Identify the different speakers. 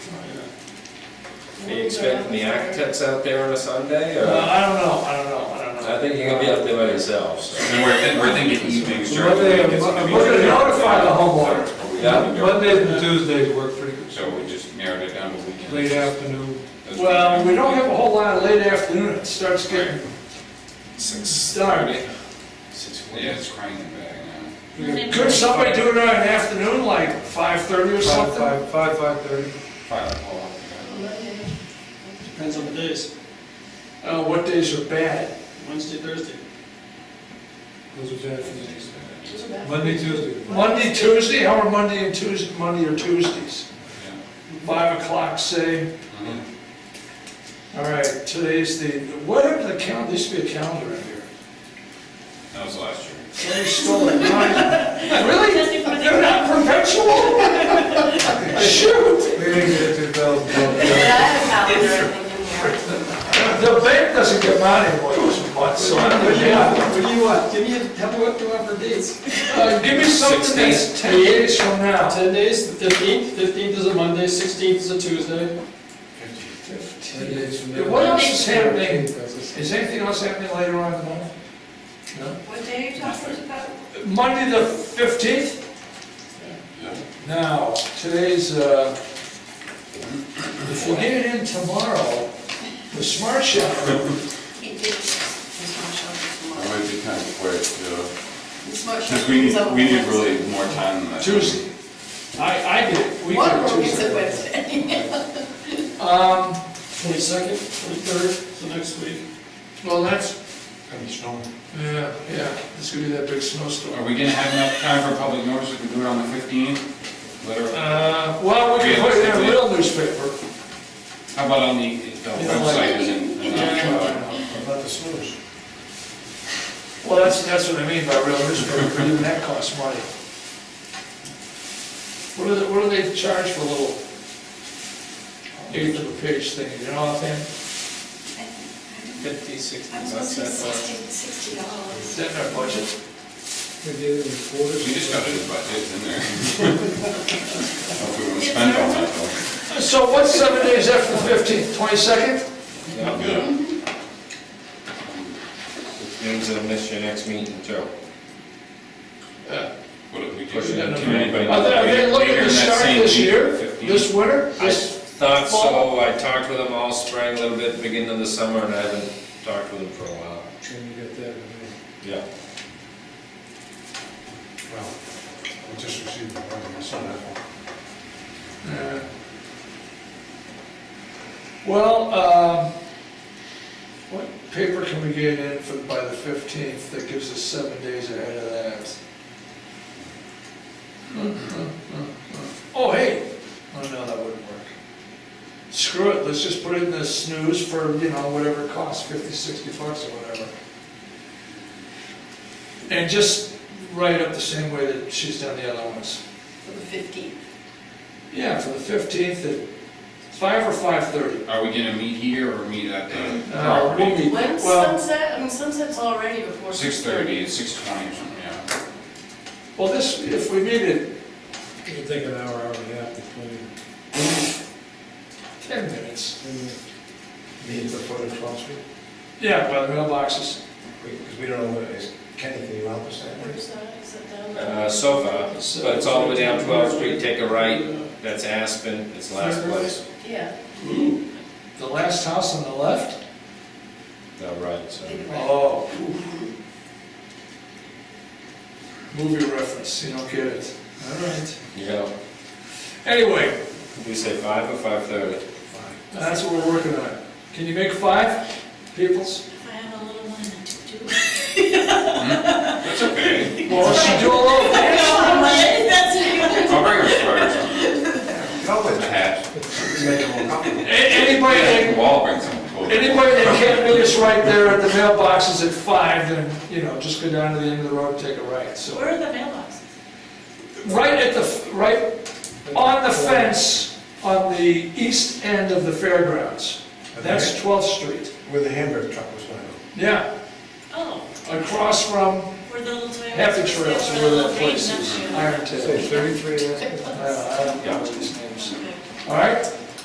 Speaker 1: Are you expecting the architects out there on a Sunday,
Speaker 2: Uh,
Speaker 1: or?
Speaker 2: I don't know, I don't know, I don't know.
Speaker 1: I think you're gonna be out there by yourself, so.
Speaker 3: And we're, think- we're thinking evenings during the
Speaker 4: Monday,
Speaker 3: week.
Speaker 4: I'm
Speaker 2: uh,
Speaker 3: is-
Speaker 4: I'm looking to notify the homeowner.
Speaker 1: Yeah.
Speaker 4: Mondays and Tuesdays work pretty good,
Speaker 3: So we just narrowed it down to weekends.
Speaker 4: late afternoon.
Speaker 3: Those
Speaker 2: Well, we
Speaker 3: weekends.
Speaker 2: don't have a whole lot of late afternoon, it starts getting
Speaker 1: Six,
Speaker 2: dark.
Speaker 1: six
Speaker 3: Yeah,
Speaker 1: forty.
Speaker 3: it's cranking back now.
Speaker 2: Could somebody do it on an afternoon, like five-thirty or
Speaker 4: Five,
Speaker 2: something?
Speaker 4: five, five, five thirty.
Speaker 3: Five o'clock. yeah.
Speaker 5: Depends on the days,
Speaker 2: Uh, what days are bad?
Speaker 5: Wednesday, Thursday.
Speaker 4: Those are bad for me. Monday, Tuesday.
Speaker 2: Monday, Tuesday, how are Monday and Tuesday, Monday or Tuesdays?
Speaker 3: Yeah.
Speaker 2: Five o'clock, say,
Speaker 3: Mhm.
Speaker 2: all right, today's the, what happened to the calendar, there used to be a calendar in here.
Speaker 3: That was last year.
Speaker 2: Somebody stole it, mine. Really? They're not perpetual? Shoot,
Speaker 4: We didn't get two thousand.
Speaker 6: I have a calendar, I think, in here.
Speaker 2: the bank doesn't get mine anymore, it was months, so I don't know.
Speaker 5: What do you want? Give me, a- tell me what you want for dates.
Speaker 2: Uh, Give me something that's ten days from now.
Speaker 5: Ten days, the fifteenth, fifteenth is a Monday, sixteenth is a Tuesday.
Speaker 2: Yeah, What else is happening? Is anything else happening later on in the month? No?
Speaker 6: What day are you talking about?
Speaker 2: Monday the fifteenth? Now, today's, uh, if we get it in tomorrow, the smart shop,
Speaker 6: He did, this one showed us
Speaker 3: It might be kind of quick, yeah.
Speaker 6: This one showed
Speaker 3: Because we
Speaker 6: us
Speaker 3: need,
Speaker 6: on
Speaker 3: we need
Speaker 6: Wednesday.
Speaker 3: really more time than that.
Speaker 2: Tuesday. I, I did, it. we
Speaker 6: One
Speaker 2: did
Speaker 6: of them is a
Speaker 2: Tuesday.
Speaker 6: Wednesday.
Speaker 2: Um,
Speaker 5: Twenty-second, twenty-third, so next week.
Speaker 2: well, that's. Yeah, yeah, it's gonna be that big snowstorm.
Speaker 3: Are we gonna have enough time for public notice if we do it on the fifteenth? Literally,
Speaker 2: Uh, well, we can put it in a real newspaper.
Speaker 3: how about on the, the website uh, isn't enough?
Speaker 2: About the sewers. Well, that's, that's what I mean by real newspaper, even that costs money. What do they, what do they charge for a little eighth of a page thing, you know what I'm saying?
Speaker 1: Fifty, sixty
Speaker 6: I'm
Speaker 1: bucks,
Speaker 6: supposed to
Speaker 1: that's
Speaker 6: be
Speaker 1: all.
Speaker 6: sixty, sixty
Speaker 2: Is
Speaker 6: dollars.
Speaker 2: that in our budget?
Speaker 4: We did it in quarters.
Speaker 3: We just got the budgets in there. Hope we won't spend all that though.
Speaker 2: So what's seven days after the fifteenth, twenty-second?
Speaker 3: Yeah.
Speaker 1: Means I'll miss your next meeting, Joe.
Speaker 3: What if we do?
Speaker 1: Pushing it.
Speaker 3: Can anybody-
Speaker 2: Are they, are they looking
Speaker 3: Later
Speaker 2: to
Speaker 3: in that
Speaker 2: start
Speaker 3: same
Speaker 2: this
Speaker 3: week,
Speaker 2: year,
Speaker 3: 15th?
Speaker 2: this winter?
Speaker 1: I
Speaker 2: This-
Speaker 1: thought so, I talked with them all spring, a little bit, beginning of the summer, and I haven't talked with them for a while.
Speaker 4: Can you get that in there?
Speaker 1: Yeah.
Speaker 7: Well, we just received the one, I saw that one.
Speaker 2: Uh, Well, um, what paper can we get in for, by the fifteenth that gives us seven days ahead of that? Oh, hey, oh no, that wouldn't work. Screw it, let's just put it in the snooze for, you know, whatever it costs, fifty, sixty bucks or whatever. And just write up the same way that she's done the other ones.
Speaker 6: For the fifteenth.
Speaker 2: Yeah, for the fifteenth at five or five thirty.
Speaker 3: Are we gonna meet here or meet at the
Speaker 2: Uh, we'll
Speaker 3: property?
Speaker 2: meet,
Speaker 6: When's
Speaker 2: well,
Speaker 6: sunset? I mean, sunset's already before
Speaker 3: Six thirty, six twenty or something, yeah.
Speaker 2: well, this, if we meet at
Speaker 4: It'll take an hour, hour and a half between.
Speaker 2: ten minutes,
Speaker 7: Meeting before the twelfth street,
Speaker 2: yeah, by the mailboxes.
Speaker 7: because we don't know what it is. Kenny, can you help us that way?
Speaker 6: Where's that? Is that down there?
Speaker 1: Uh, so far, but it's all the way down 12th Street, take a right, that's Aspen, it's last place.
Speaker 6: Yeah,
Speaker 2: The last house on the left?
Speaker 1: No, right, so.
Speaker 2: Oh. Movie reference, you don't get it. All right.
Speaker 1: Yeah,
Speaker 2: Anyway,
Speaker 1: we say five or five-thirty?
Speaker 2: that's what we're working on. Can you make five, peoples?
Speaker 6: if I have a little one and two, two.
Speaker 3: That's okay.
Speaker 2: Well, she do a little
Speaker 6: That's what you
Speaker 3: I'll bring a sweater or something,
Speaker 7: Covered.
Speaker 3: a hat.
Speaker 2: A- Anybody that
Speaker 3: Yeah, we'll all bring some clothes.
Speaker 2: Anybody that can't meet us right there at the mailboxes at five, then, you know, just go down to the end of the road and take a right, so.
Speaker 6: Where are the mailboxes?
Speaker 2: Right at the, f- right on the fence on the east end of the fairgrounds. That's 12th Street.
Speaker 7: Where the hamburger truck was going.
Speaker 2: Yeah,
Speaker 6: Oh,
Speaker 2: across from
Speaker 6: where the little Toyota.
Speaker 2: Happy Trails, where that place is,
Speaker 6: That's you.
Speaker 2: Iron Tail.
Speaker 7: thirty-three,
Speaker 2: I don't I don't know these names.
Speaker 6: Okay.
Speaker 2: All right,